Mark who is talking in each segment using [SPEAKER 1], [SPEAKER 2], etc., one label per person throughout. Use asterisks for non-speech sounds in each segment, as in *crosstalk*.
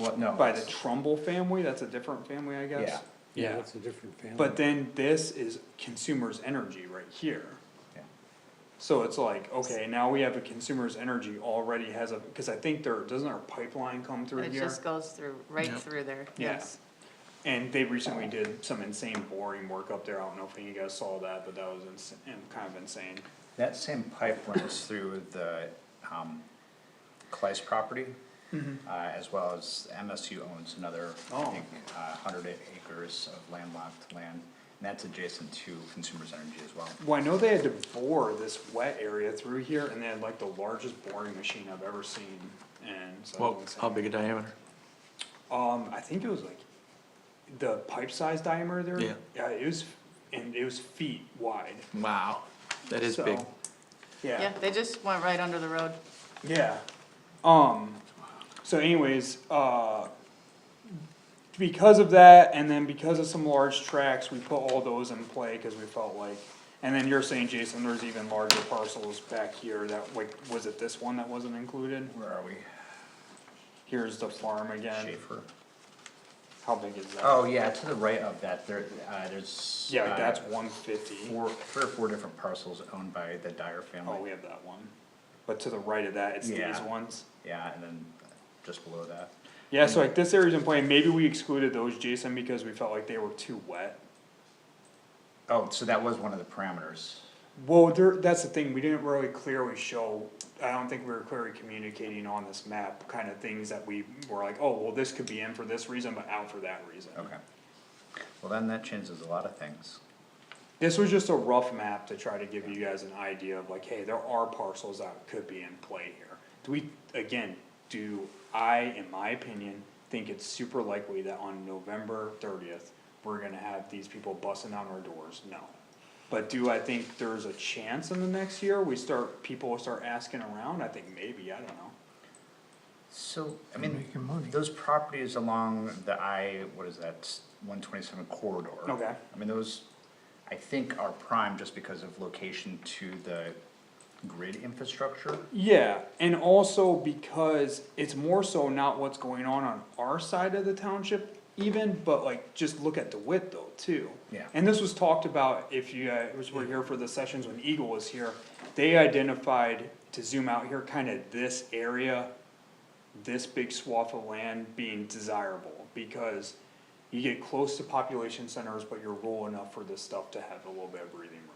[SPEAKER 1] What, no.
[SPEAKER 2] by the Trumbull family, that's a different family, I
[SPEAKER 1] Yeah,
[SPEAKER 2] guess.
[SPEAKER 3] Yeah,
[SPEAKER 2] Yeah,
[SPEAKER 3] that's a different family.
[SPEAKER 2] but then this is consumers' energy right here.
[SPEAKER 1] Yeah.
[SPEAKER 2] So it's like, okay, now we have a consumers' energy already has a, cause I think there, doesn't our pipeline come through
[SPEAKER 4] It
[SPEAKER 2] here?
[SPEAKER 4] just goes through, right
[SPEAKER 3] Yeah.
[SPEAKER 4] through there,
[SPEAKER 2] Yeah.
[SPEAKER 4] yes.
[SPEAKER 2] And they recently did some insane boring work up there, I don't know if any of you guys saw that, but that was ins- and kind of insane.
[SPEAKER 1] that same pipe runs through the, um, Kleist property. Uh, as well as MSU owns another, I
[SPEAKER 2] Mm-hmm. Oh.
[SPEAKER 1] think, uh, hundred acres of landlocked land. And that's adjacent to Consumers Energy as well.
[SPEAKER 2] Well, I know they had to bore this wet area through here, and they had like the largest boring machine I've ever seen, and so. that was
[SPEAKER 3] Well,
[SPEAKER 2] insane.
[SPEAKER 3] how big a diameter?
[SPEAKER 2] Um, I think it was like the pipe size diameter there.
[SPEAKER 3] Yeah.
[SPEAKER 2] it was, and it was feet wide.
[SPEAKER 3] Wow, that is big.
[SPEAKER 2] so,
[SPEAKER 4] Yeah,
[SPEAKER 2] Yeah,
[SPEAKER 4] they just went right under the road.
[SPEAKER 2] yeah. Um, so anyways, uh, because of that, and then because of some large tracks, we put all those in play, cause we felt like, and then you're saying, Jason, there's even larger parcels back here that, like, was it this one that wasn't included?
[SPEAKER 1] Where are we?
[SPEAKER 2] Here's the farm again.
[SPEAKER 1] Schaefer.
[SPEAKER 2] How big is that?
[SPEAKER 1] Oh, yeah, to the right of that, there, uh, there's.
[SPEAKER 2] Yeah, like,
[SPEAKER 1] uh,
[SPEAKER 2] that's one fifty.
[SPEAKER 1] Four, three or four different parcels owned by the Dyer
[SPEAKER 2] Oh,
[SPEAKER 1] family.
[SPEAKER 2] we have that one, but to the right of that, it's these
[SPEAKER 1] Yeah.
[SPEAKER 2] ones.
[SPEAKER 1] Yeah, and then just below that.
[SPEAKER 2] Yeah, so like this area's in play, maybe we excluded those, Jason, because we felt like they were too wet.
[SPEAKER 1] Oh, so that was one of the parameters.
[SPEAKER 2] Well, there, that's the thing, we didn't really clearly show, I don't think we were clearly communicating on this map, kinda things that we were like, oh, well, this could be in for this reason, but out for that reason.
[SPEAKER 1] Okay. Well, then that changes a lot of things.
[SPEAKER 2] This was just a rough map to try to give you guys an idea of like, hey, there are parcels that could be in play here. Do we, again, do I, in my opinion, think it's super likely that on November thirtieth, we're gonna have these people busting down our doors? No. But do I think there's a chance in the next year we start, people will start asking around? I think maybe, I don't know.
[SPEAKER 1] So, I mean, those properties along the I, what is that, one twenty-seven corridor?
[SPEAKER 2] Okay.
[SPEAKER 1] I mean, those, I think are prime just because of location to the grid infrastructure.
[SPEAKER 2] Yeah, and also because it's more so not what's going on on our side of the township even, but like, just look at DeWitt though, too.
[SPEAKER 1] Yeah.
[SPEAKER 2] And this was talked about, if you, uh, was, were here for the sessions when Eagle was here, they identified, to zoom out here, kinda this area, this big swath of land being desirable, because you get close to population centers, but you're rural enough for this stuff to have a little bit of breathing room.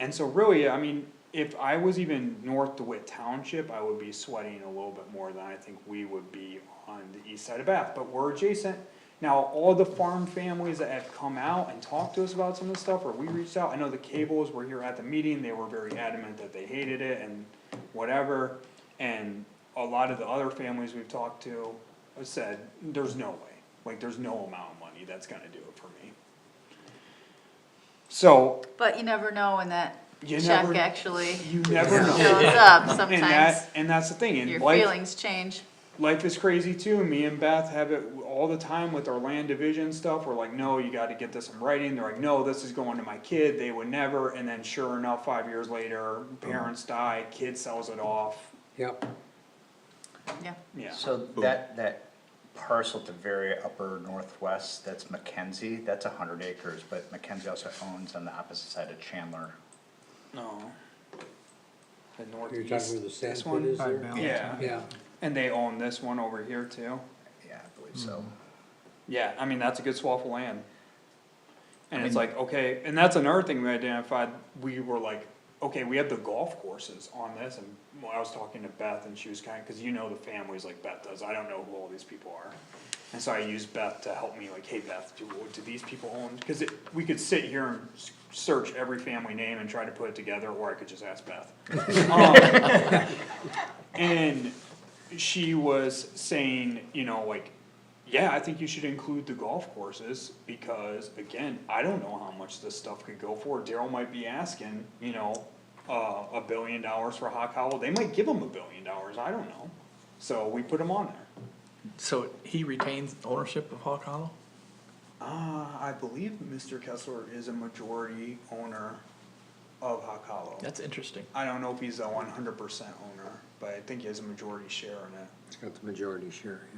[SPEAKER 2] And so really, I mean, if I was even north DeWitt Township, I would be sweating a little bit more than I think we would be on the east side of Bath, but we're adjacent. Now, all the farm families that have come out and talked to us about some of this stuff, or we reached out, I know the Cables were here at the meeting, they were very adamant that they hated it and whatever. And a lot of the other families we've talked to have said, there's no way, like, there's no amount of money that's gonna do it for me. So,
[SPEAKER 4] But you never know when that
[SPEAKER 2] You
[SPEAKER 4] check
[SPEAKER 2] never-
[SPEAKER 4] actually
[SPEAKER 2] you never know. *laughs*
[SPEAKER 4] shows up
[SPEAKER 2] And
[SPEAKER 4] sometimes.
[SPEAKER 2] that, and that's the thing, and
[SPEAKER 4] Your
[SPEAKER 2] life,
[SPEAKER 4] feelings change.
[SPEAKER 2] life is crazy too, me and Beth have it all the time with our land division stuff, we're like, no, you gotta get this in writing, they're like, no, this is going to my kid, they would never, and then sure enough, five years later, parents die, kid sells it off,
[SPEAKER 3] Yep.
[SPEAKER 4] Yeah,
[SPEAKER 2] yeah.
[SPEAKER 1] So that, that parcel at the very upper northwest, that's Mackenzie, that's a hundred acres, but Mackenzie also owns on the opposite side of Chandler.
[SPEAKER 2] No. The
[SPEAKER 3] You're talking where
[SPEAKER 2] northeast,
[SPEAKER 3] the
[SPEAKER 2] this
[SPEAKER 3] sand pit is
[SPEAKER 2] one,
[SPEAKER 3] there?
[SPEAKER 2] yeah,
[SPEAKER 3] Yeah,
[SPEAKER 2] and they own this one over here too,
[SPEAKER 1] Yeah, I believe so.
[SPEAKER 2] yeah, I mean, that's a good swath of land. And
[SPEAKER 1] I
[SPEAKER 2] it's
[SPEAKER 1] mean-
[SPEAKER 2] like, okay, and that's another thing we identified, we were like, okay, we have the golf courses on this, and when I was talking to Beth, and she was kinda, cause you know the families like Beth does, I don't know who all these people are. And so I used Beth to help me, like, hey Beth, do, do these people own, cause it, we could sit here and s- search every family name and try to put it together, or I could just ask Beth. Um, And she was saying, you know, like, yeah, I think you should include the golf courses, because again, I don't know how much this stuff could go for, Daryl might be asking, you know, uh, a billion dollars for Hawk Hollow, they might give him a billion dollars, I don't know, so we put him on there.
[SPEAKER 3] so he retains ownership of Hawk Hollow?
[SPEAKER 2] Uh, I believe Mr. Kessler is a majority owner, of Hawk Hollow.
[SPEAKER 5] That's interesting.
[SPEAKER 2] I don't know if he's a one hundred percent owner, but I think he has a majority share in it.
[SPEAKER 3] It's got the majority share, yeah.